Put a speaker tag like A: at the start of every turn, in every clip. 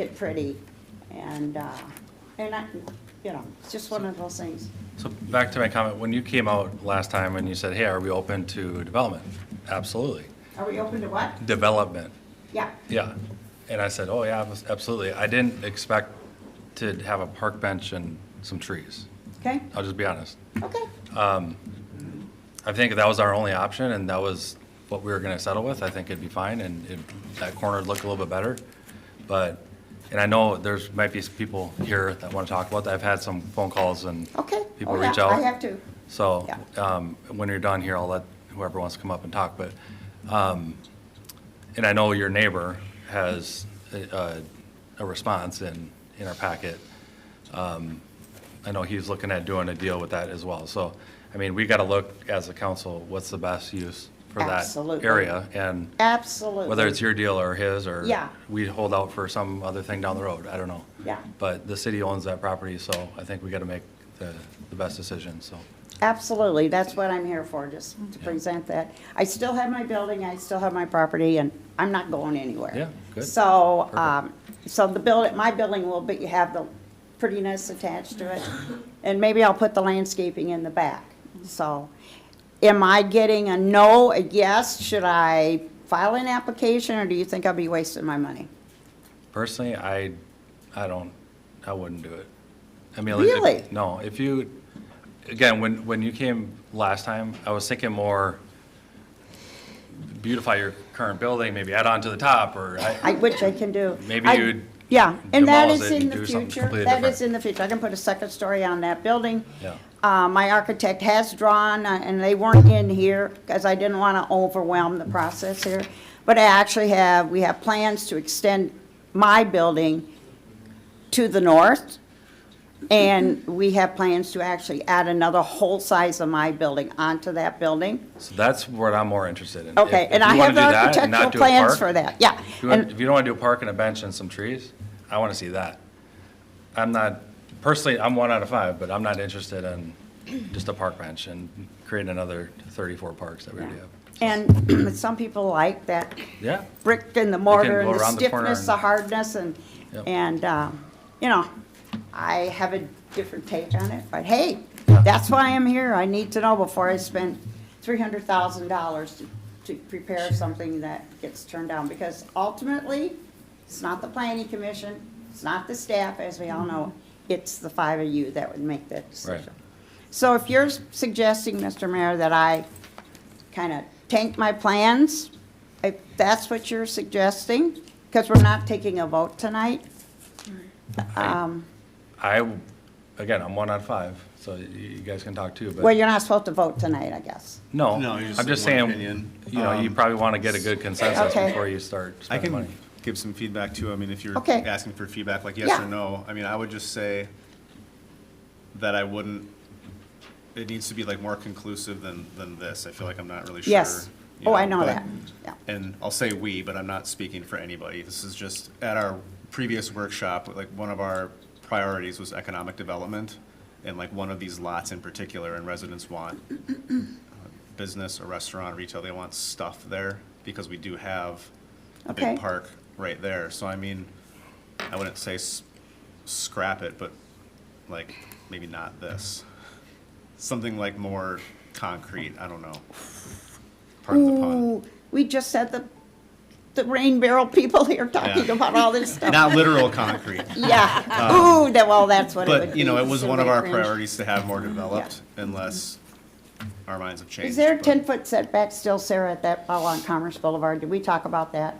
A: it pretty, and, uh, and I, you know, it's just one of those things.
B: So back to my comment, when you came out last time and you said, hey, are we open to development? Absolutely.
A: Are we open to what?
B: Development,
A: Yeah,
B: yeah. And I said, oh, yeah, abs- absolutely. I didn't expect to have a park bench and some trees.
A: okay,
B: I'll just be honest.
A: okay,
B: I think if that was our only option and that was what we were gonna settle with, I think it'd be fine and it- that corner would look a little bit better. But, and I know there's, might be some people here that wanna talk about that. I've had some phone calls and
A: okay.
B: people
A: Oh, yeah,
B: reach out.
A: I have to,
B: So,
A: Yeah.
B: um, when you're done here, I'll let whoever wants to come up and talk, but, um, and I know your neighbor has a, a- a response in, in our packet. Um, I know he's looking at doing a deal with that as well, so, I mean, we gotta look as a council, what's the best use for that
A: Absolutely.
B: area? And
A: absolutely.
B: whether it's your deal or his, or
A: Yeah.
B: we hold out for some other thing down the road, I don't know.
A: Yeah.
B: But the city owns that property, so I think we gotta make the, the best decision, so.
A: Absolutely, that's what I'm here for, just to present that. I still have my building, I still have my property, and I'm not going anywhere.
B: Yeah, good.
A: So,
B: Perfect.
A: um, so the building, my building will, but you have the prettiness attached to it, and maybe I'll put the landscaping in the back, so. Am I getting a no, a yes? Should I file an application, or do you think I'll be wasting my money?
B: Personally, I, I don't, I wouldn't do it. I mean, if-
A: Really?
B: No, if you, again, when, when you came last time, I was thinking more beautify your current building, maybe add on to the top, or, I-
A: I, which I can do.
B: Maybe
A: I-
B: you'd
A: Yeah, and that
B: demolish
A: is
B: it
A: in
B: and
A: the
B: do something
A: future,
B: completely
A: that
B: different.
A: is in the future, I can put a second story on that building.
B: Yeah.
A: Uh, my architect has drawn, uh, and they weren't in here, because I didn't want to overwhelm the process here. But I actually have, we have plans to extend my building to the north, and we have plans to actually add another whole size of my building onto that building.
B: so that's what I'm more interested in.
A: Okay,
B: If- if
A: and
B: you
A: I
B: wanna
A: have
B: do
A: the
B: that and
A: architectural
B: not do a
A: plans
B: park,
A: for that, yeah.
B: If you
A: And-
B: want- if you don't want to do a park and a bench and some trees, I want to see that. I'm not, personally, I'm one out of five, but I'm not interested in just a park bench and creating another 34 parks that we already have.
A: And some people like that
B: Yeah,
A: brick and the mortar and
B: go
A: the
B: around the corner
A: stiffness,
B: and-
A: the hardness, and,
B: Yep.
A: and, um, you know, I have a different take on it, but hey, that's why I'm here, I need to know before I spend three hundred thousand dollars to, to prepare something that gets turned down, because ultimately, it's not the planning commission, it's not the staff, as we all know,
B: Mm-hmm.
A: it's the five of you that would make that decision. So if you're suggesting, Mr. Mayor, that I kind of tank my plans, if that's what you're suggesting, because we're not taking a vote tonight. Um,
B: I, again, I'm one out of five, so you you guys can talk too,
A: Well,
B: but,
A: you're not supposed to vote tonight, I guess.
B: no,
C: No, you're just
B: I'm just
C: one
B: saying,
C: opinion.
B: you know, you
C: Um,
B: probably want to get a good consensus
A: Okay.
B: before you start
C: I
B: spending
C: can
B: money.
C: give some feedback too. I mean, if you're
A: Okay.
C: asking for feedback, like yes
A: Yeah.
C: or no, I mean, I would just say that I wouldn't, it needs to be like more conclusive than, than this. I feel like I'm not really sure.
A: Yes.
C: you
A: Oh, I know
C: but-
A: that. Yeah.
C: And I'll say we, but I'm not speaking for anybody. This is just, at our previous workshop, like one of our priorities was economic development. And like one of these lots in particular, and residents want business, a restaurant, retail, they want stuff there because we do have a
A: Okay.
C: big park right there. So I mean, I wouldn't say s- scrap it, but like maybe not this. Something like more concrete, I don't know. Pardon the pun.
A: Ooh, we just had the, the rain barrel people here talking
C: Yeah.
A: about all this stuff.
C: Not literal concrete.
A: Yeah. Ooh, that, well, that's what it would be.
C: But, you know, it was
A: so
C: one of our
A: cringe.
C: priorities to have more developed unless our minds have changed.
A: Is there a
C: but-
A: ten-foot setback still, Sarah, at that, along Commerce Boulevard? Did we talk about that?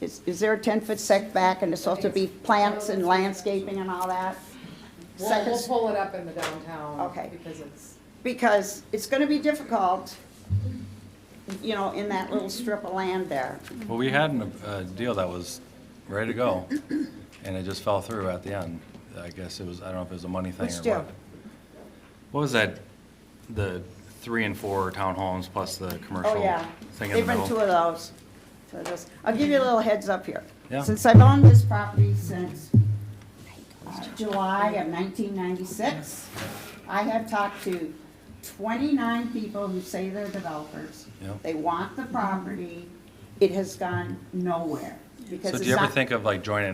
A: Is, is there a ten-foot setback and it's supposed to be plants and landscaping and all that?
D: We'll,
A: Second
D: we'll
A: s-
D: pull it up in the downtown.
A: Okay.
D: Because it's,
A: Because it's gonna be difficult, you know, in that little strip of land there.
B: Well, we had an- a deal that was ready to go, and it just fell through at the end. I guess it was, I don't know if it was a money thing or
A: Which
B: what.
A: deal?
B: What was that, the three and four townhomes plus the commercial
A: Oh, yeah.
B: thing in the
A: They've been two
B: middle?
A: of those. Two of those. I'll give you a little heads up here.
B: Yeah.
A: Since I've owned this property since uh, July of nineteen ninety-six, I have talked to twenty-nine people who say they're developers.
B: Yep.
A: They want the property. It has gone nowhere. because
B: So
A: it's
B: do you ever
A: not.
B: think of like joining